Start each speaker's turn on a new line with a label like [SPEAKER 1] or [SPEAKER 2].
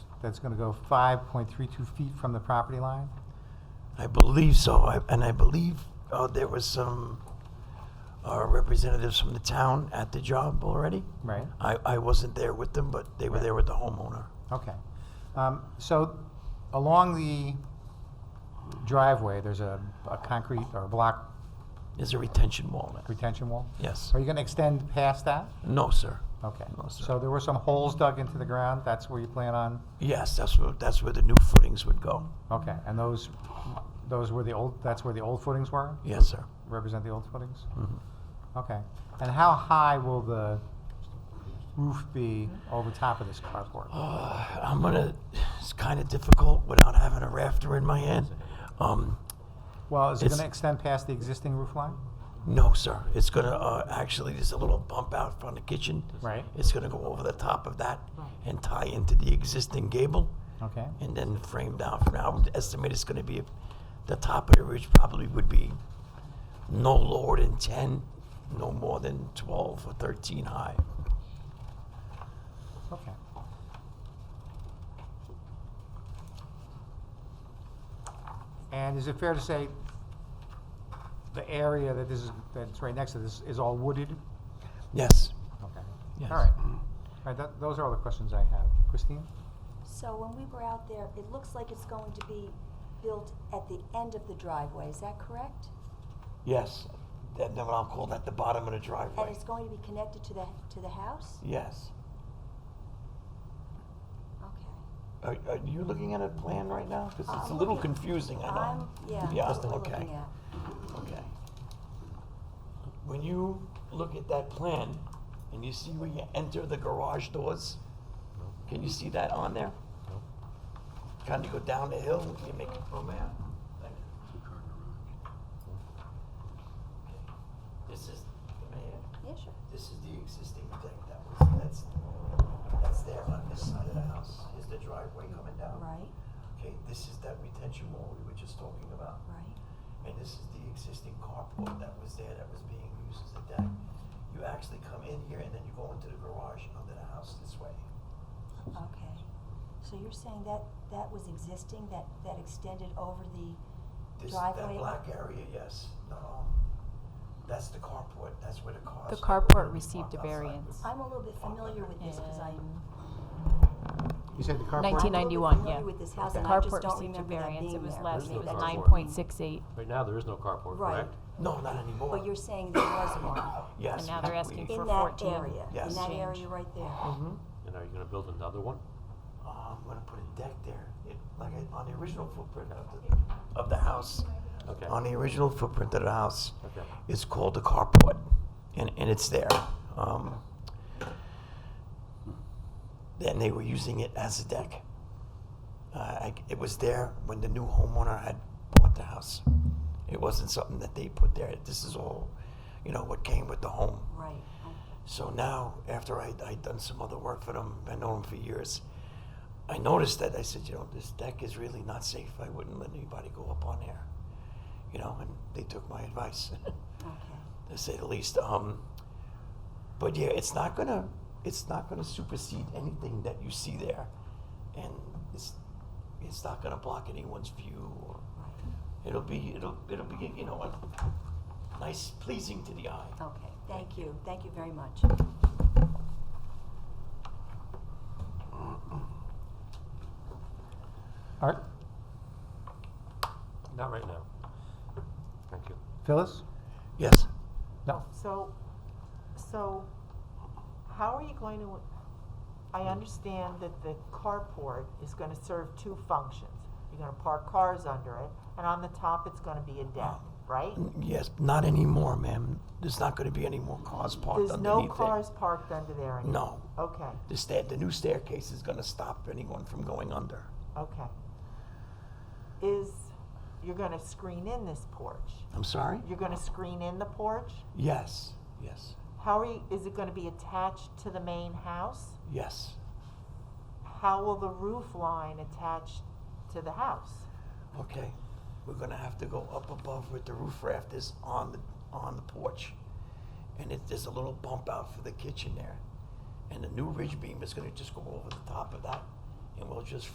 [SPEAKER 1] that's going to go 5.32 feet from the property line?
[SPEAKER 2] I believe so, I- and I believe uh, there was some uh, representatives from the town at the job already.
[SPEAKER 1] Right.
[SPEAKER 2] I, I wasn't there with them, but they were there with the homeowner.
[SPEAKER 1] Okay. Um, So along the driveway, there's a a concrete or block
[SPEAKER 2] There's a retention wall there.
[SPEAKER 1] retention wall?
[SPEAKER 2] Yes.
[SPEAKER 1] Are you going to extend past that?
[SPEAKER 2] No, sir.
[SPEAKER 1] Okay.
[SPEAKER 2] No, sir.
[SPEAKER 1] So there were some holes dug into the ground, that's where you plan on?
[SPEAKER 2] Yes, that's where, that's where the new footings would go.
[SPEAKER 1] Okay, and those, those were the old, that's where the old footings were?
[SPEAKER 2] Yes, sir.
[SPEAKER 1] Represent the old footings?
[SPEAKER 2] Mhm.
[SPEAKER 1] Okay. And how high will the roof be over top of this carport?
[SPEAKER 2] Uh, I'm gonna, it's kind of difficult without having a rafter in my hand. Um,
[SPEAKER 1] Well, is it
[SPEAKER 2] It's-
[SPEAKER 1] going to extend past the existing roof line?
[SPEAKER 2] no, sir. It's gonna, uh, actually, there's a little bump out front of the kitchen.
[SPEAKER 1] Right.
[SPEAKER 2] It's gonna go over the top of that and tie into the existing gable
[SPEAKER 1] Okay,
[SPEAKER 2] and then frame down from now. I would estimate it's gonna be, the top of the ridge probably would be no lower than ten, no more than twelve or thirteen high.
[SPEAKER 1] okay. And is it fair to say the area that this is, that's right next to this is all wooded?
[SPEAKER 2] Yes.
[SPEAKER 1] Okay.
[SPEAKER 2] Yes.
[SPEAKER 1] All right. All right, that, those are all the questions I have. Christine?
[SPEAKER 3] So when we were out there, it looks like it's going to be built at the end of the driveway, is that correct?
[SPEAKER 2] Yes. That, that what I'll call that the bottom of the
[SPEAKER 3] And
[SPEAKER 2] driveway.
[SPEAKER 3] it's going to be connected to the, to the house?
[SPEAKER 2] Yes.
[SPEAKER 3] Okay.
[SPEAKER 2] Are, are you looking at a plan right now? Because it's a
[SPEAKER 3] I'm
[SPEAKER 2] little
[SPEAKER 3] looking-
[SPEAKER 2] confusing, I
[SPEAKER 3] I'm,
[SPEAKER 2] know.
[SPEAKER 3] yeah,
[SPEAKER 2] Yeah,
[SPEAKER 3] that's what I'm
[SPEAKER 2] okay.
[SPEAKER 3] looking at.
[SPEAKER 2] Okay. When you look at that plan and you see where you enter the garage doors, can you see that on there? Kind of go down the hill, you make, oh man. Thank you. Okay. This is, man.
[SPEAKER 3] Yeah, sure.
[SPEAKER 2] This is the existing thing that was, that's, that's there on this side of the house, is the driveway coming down.
[SPEAKER 3] Right,
[SPEAKER 2] Okay, this is that retention wall we were just talking about,
[SPEAKER 3] right.
[SPEAKER 2] and this is the existing carport that was there that was being used as a deck. You actually come in here and then you go into the garage under the house this way.
[SPEAKER 3] Okay. So you're saying that, that was existing, that, that extended over the
[SPEAKER 2] This,
[SPEAKER 3] driveway?
[SPEAKER 2] that black area, yes, no, no. That's the carport, that's where the cars.
[SPEAKER 4] The
[SPEAKER 2] are
[SPEAKER 4] carport
[SPEAKER 2] gonna be
[SPEAKER 4] received
[SPEAKER 2] parked
[SPEAKER 4] a
[SPEAKER 2] outside.
[SPEAKER 4] variance.
[SPEAKER 3] I'm a little bit familiar with this, because I.
[SPEAKER 4] And-
[SPEAKER 1] You said the carport?
[SPEAKER 3] I'm a little bit
[SPEAKER 4] 1991, yeah.
[SPEAKER 3] familiar with this house,
[SPEAKER 4] The
[SPEAKER 3] and I just
[SPEAKER 4] carport
[SPEAKER 3] don't
[SPEAKER 4] received a
[SPEAKER 3] remember that
[SPEAKER 4] variance.
[SPEAKER 3] being
[SPEAKER 4] It was
[SPEAKER 3] there.
[SPEAKER 4] less,
[SPEAKER 5] There's
[SPEAKER 4] it was
[SPEAKER 5] no carport.
[SPEAKER 4] nine point six eight,
[SPEAKER 5] Right now, there is no carport,
[SPEAKER 3] Right.
[SPEAKER 5] correct?
[SPEAKER 2] No, not anymore.
[SPEAKER 3] But you're saying there was one?
[SPEAKER 2] Yes.
[SPEAKER 4] and now they're asking
[SPEAKER 2] we-
[SPEAKER 4] for
[SPEAKER 3] In that
[SPEAKER 4] 14.
[SPEAKER 3] area, in
[SPEAKER 2] Yes.
[SPEAKER 3] that
[SPEAKER 4] Change.
[SPEAKER 3] area right there.
[SPEAKER 2] Mhm.
[SPEAKER 5] And are you gonna build another one?
[SPEAKER 2] Uh, I'm gonna put a deck there, it, like I- on the original footprint of the, of the house.
[SPEAKER 5] Okay.
[SPEAKER 2] On the original footprint of the house,
[SPEAKER 5] Okay.
[SPEAKER 2] it's called the carport, and, and it's there. Um, then they were using it as a deck. Uh, I, it was there when the new homeowner had bought the house. It wasn't something that they put there. This is all, you know, what came with the home.
[SPEAKER 3] Right.
[SPEAKER 2] So now, after I I'd done some other work for them, I know them for years. I noticed that I said, you know, this deck is really not safe. I wouldn't let anybody go up on there, you know. And they took my advice,
[SPEAKER 3] Okay.
[SPEAKER 2] to say the least. Um, but yeah, it's not gonna it's not gonna supersede anything that you see there, and it's it's not gonna block anyone's view. Or it'll be it'll it'll be you know a nice pleasing to the eye.
[SPEAKER 3] Okay. Thank you. Thank you very much.
[SPEAKER 1] Art?
[SPEAKER 5] Not right now. Thank you.
[SPEAKER 1] Phyllis?
[SPEAKER 2] Yes.
[SPEAKER 1] No?
[SPEAKER 6] So, so how are you going to, I understand that the carport is gonna serve two functions. You're gonna park cars under it, and on the top, it's gonna be a deck, right?
[SPEAKER 2] Yes, not anymore, ma'am. There's not going to be any more cars parked
[SPEAKER 6] There's no
[SPEAKER 2] underneath
[SPEAKER 6] cars parked under there
[SPEAKER 2] it.
[SPEAKER 6] anymore?
[SPEAKER 2] No,
[SPEAKER 6] Okay,
[SPEAKER 2] the stair, the new staircase is going to stop anyone from going under.
[SPEAKER 6] okay. Is, you're gonna screen in this porch?
[SPEAKER 2] I'm sorry.
[SPEAKER 6] You're gonna screen in the porch?
[SPEAKER 2] Yes, yes,
[SPEAKER 6] How are you, is it gonna be attached to the main house?
[SPEAKER 2] yes.
[SPEAKER 6] How will the roof line attach to the house?
[SPEAKER 2] Okay, we're going to have to go up above with the roof rafters on the on the porch, and it, there's a little bump out for the kitchen there, and the new ridge beam is going to just go over the top of that, and we'll just